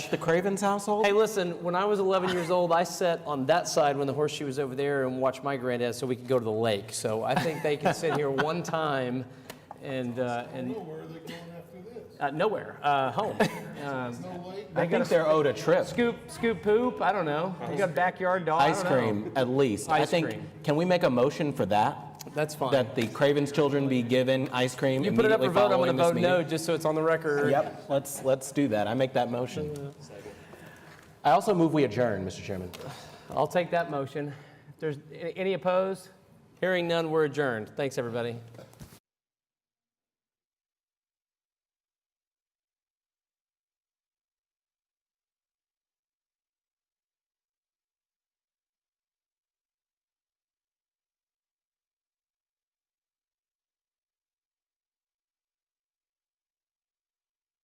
the Cravens household? Hey, listen, when I was 11 years old, I sat on that side when the horseshoe was over there and watched my granddad so we could go to the lake. So I think they can sit here one time and, uh, and Where are they going after this? uh, nowhere, uh, home. Um, No lake? I think they're owed a trip. scoop, scoop poop, I don't know. You got a backyard dog. I Ice don't know. cream, at least. I Ice think, cream. can we make a motion for that? That's fine. That the Cravens children be given ice cream you put it up immediately for vote, I'm following going to this vote meeting? no just so it's on the record. Yep, let's, let's do that. I make that motion. I also move we adjourn, Mr. Chairman. I'll take that motion. If there's any opposed, hearing none, we're adjourned. Thanks, everybody.